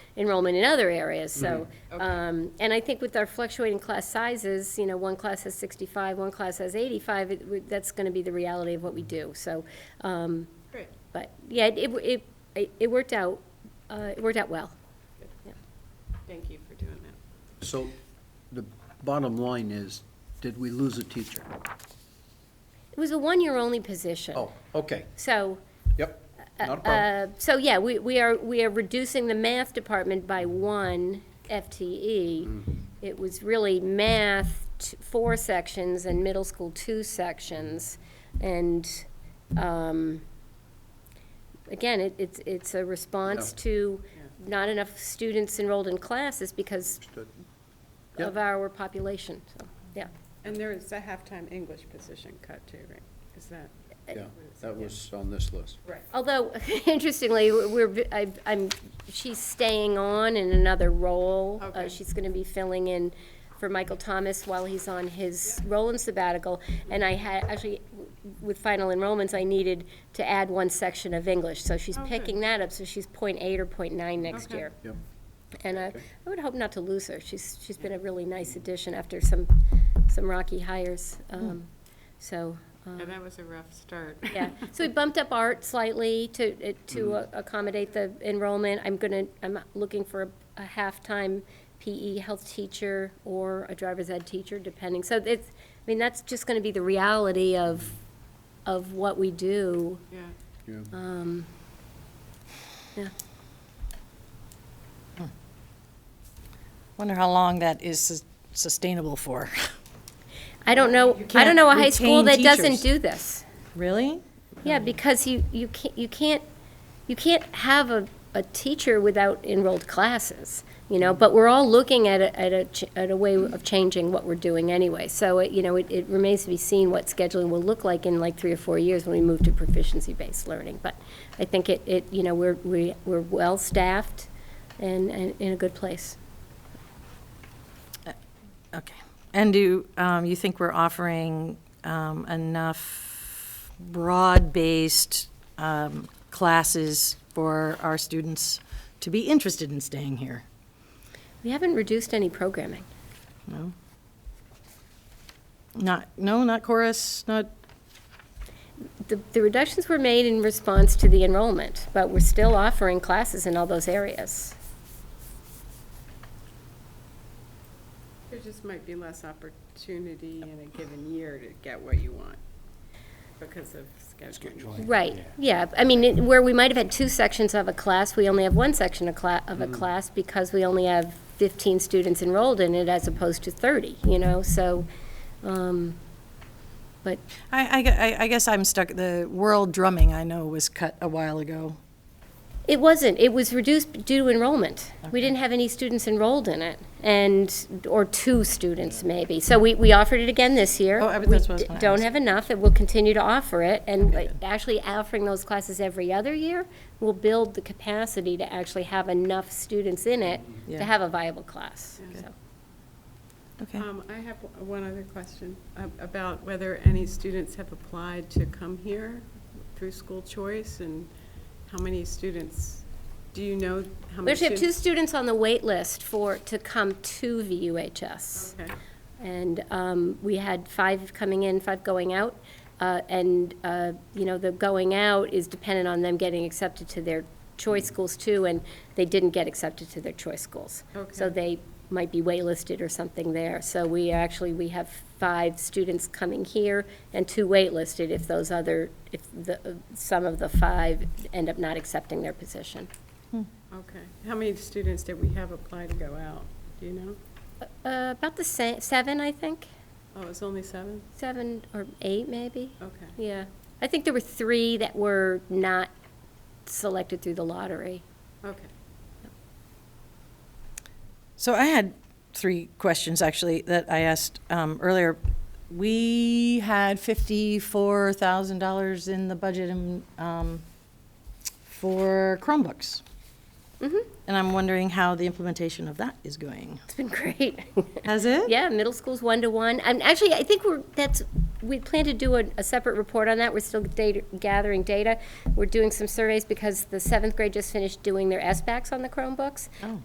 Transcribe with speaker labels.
Speaker 1: enrollment in other areas, so.
Speaker 2: Mm-hmm.
Speaker 3: Okay.
Speaker 1: um, And I think with our fluctuating class sizes, you know, one class has 65, one class has 85, it would- that's going to be the reality of what we do, so. um,
Speaker 3: Great.
Speaker 1: But, yeah, it- it, it- it, it worked out, uh, it worked out well.
Speaker 3: Thank you for doing that.
Speaker 2: So the bottom line is, did we lose a teacher?
Speaker 1: It was a one-year-only position.
Speaker 2: Oh, okay,
Speaker 1: So,
Speaker 2: yep, not a problem.
Speaker 1: uh, so yeah, we, we are, we are reducing the math department by one E.
Speaker 2: Mm.
Speaker 1: FTE. It was really math, t- four sections, and middle school, two sections. And, um, again, it, it's, it's a response
Speaker 2: Yeah.
Speaker 1: to not enough students enrolled in classes because
Speaker 2: Understood. Yeah.
Speaker 1: of our population, so, yeah.
Speaker 3: And there is a halftime English position cut too, right? Is that?
Speaker 2: Yeah, that was on this list.
Speaker 3: Right.
Speaker 1: Although, interestingly, we're, I- I'm, she's staying on in another role. Uh,
Speaker 3: Okay.
Speaker 1: She's going to be filling in for Michael Thomas while he's on his role in sabbatical. And I had, actually, w- with final enrollments, I needed to add one section of English. So she's
Speaker 3: Oh, good.
Speaker 1: picking that up, so she's point eight or point nine next
Speaker 3: Okay.
Speaker 1: year.
Speaker 2: Yep,
Speaker 1: And I,
Speaker 2: Okay.
Speaker 1: I would hope not to lose her. She's, she's been a really nice addition after some, some rocky hires.
Speaker 3: Hmm.
Speaker 1: Um, So, um,
Speaker 3: Yeah, that was a rough start.
Speaker 1: yeah, so we bumped up art slightly to, uh, to uh, accommodate the enrollment. I'm gonna, I'm looking for a- a half-time PE health teacher or a driver's ed teacher, depending. So it's, I mean, that's just gonna be the reality of, of what we do.
Speaker 3: Yeah.
Speaker 2: yeah.
Speaker 1: Um, Yeah,
Speaker 4: Wonder how long that is sus- sustainable for.
Speaker 1: I don't know,
Speaker 4: You
Speaker 1: I don't
Speaker 4: can't
Speaker 1: know a high school that
Speaker 4: retain
Speaker 1: doesn't
Speaker 4: teachers.
Speaker 1: do this.
Speaker 4: Really?
Speaker 1: Yeah, because you, you can't, you can't, you can't have a, a teacher without enrolled classes, you know, but we're all looking at a, at a, ch- at a way of changing what we're doing anyway. So, it- you know, it, it remains to be seen what scheduling will look like in like three or four years when we move to proficiency-based learning. But I think it, it, you know, we're, we, we're well-staffed and, and in a good place.
Speaker 4: Okay. And do, um, you think we're offering, um, enough broad-based, um, classes for our students to be interested in staying here?
Speaker 1: We haven't reduced any programming.
Speaker 4: No? Not, no, not chorus, not,
Speaker 1: The, the reductions were made in response to the enrollment, but we're still offering classes in all those areas.
Speaker 3: There just might be less opportunity in a given year to get what you want because of scheduling.
Speaker 1: Right, yeah, I mean, it- where we might have had two sections of a class, we only have one section of cla, of a
Speaker 4: Mm.
Speaker 1: class because we only have fifteen students enrolled in it as opposed to thirty, you know, so, um, but,
Speaker 4: I, I gue- I, I guess I'm stuck, the world drumming I know was cut a while ago.
Speaker 1: it wasn't, it was reduced due to enrollment. We didn't have any students enrolled in it, and, or two students maybe, so we, we offered it again this year.
Speaker 4: Oh, I- that's
Speaker 1: We
Speaker 4: what I was
Speaker 1: d-
Speaker 4: gonna
Speaker 1: Don't
Speaker 4: ask.
Speaker 1: have enough, and we'll continue to offer it, and like, actually offering those classes every other year will build the capacity to actually have enough students in it to
Speaker 4: Yeah.
Speaker 1: have a viable class, so.
Speaker 4: Okay.
Speaker 3: Um, I have o- one other question um, about whether any students have applied to come here through school choice and how many students, do you know how
Speaker 1: We
Speaker 3: many
Speaker 1: actually have
Speaker 3: students?
Speaker 1: two students on the wait list for, to come to VUHS.
Speaker 3: Okay.
Speaker 1: And um, we had five coming in, five going out. Uh, And, uh, you know, the going out is dependent on them getting accepted to their choice schools too, and they didn't get accepted to their choice schools. So
Speaker 3: Okay.
Speaker 1: they might be waitlisted or something there. So we actually, we have five students coming here and two waitlisted if those other, if the, uh, some of the five end up not accepting their position.
Speaker 3: Okay. How many students did we have apply to go out? Do you know?
Speaker 1: Uh, About the sa- seven, I think,
Speaker 3: Oh, it's only seven?
Speaker 1: seven or eight, maybe,
Speaker 3: Okay.
Speaker 1: yeah. I think there were three that were not selected through the lottery.
Speaker 3: Okay.
Speaker 4: So I had three questions, actually, that I asked um, earlier. We had $54,000 in the budget in, um, for Chromebooks. And I'm wondering how the implementation of that is going.
Speaker 1: It's been great.
Speaker 4: Has it?
Speaker 1: Yeah, middle school's one-to-one, and actually, I think we're, that's, we plan to do a, a separate report on that, we're still data, gathering data. We're doing some surveys because the seventh grade just finished doing their S-backs on the Chromebooks.
Speaker 4: Oh.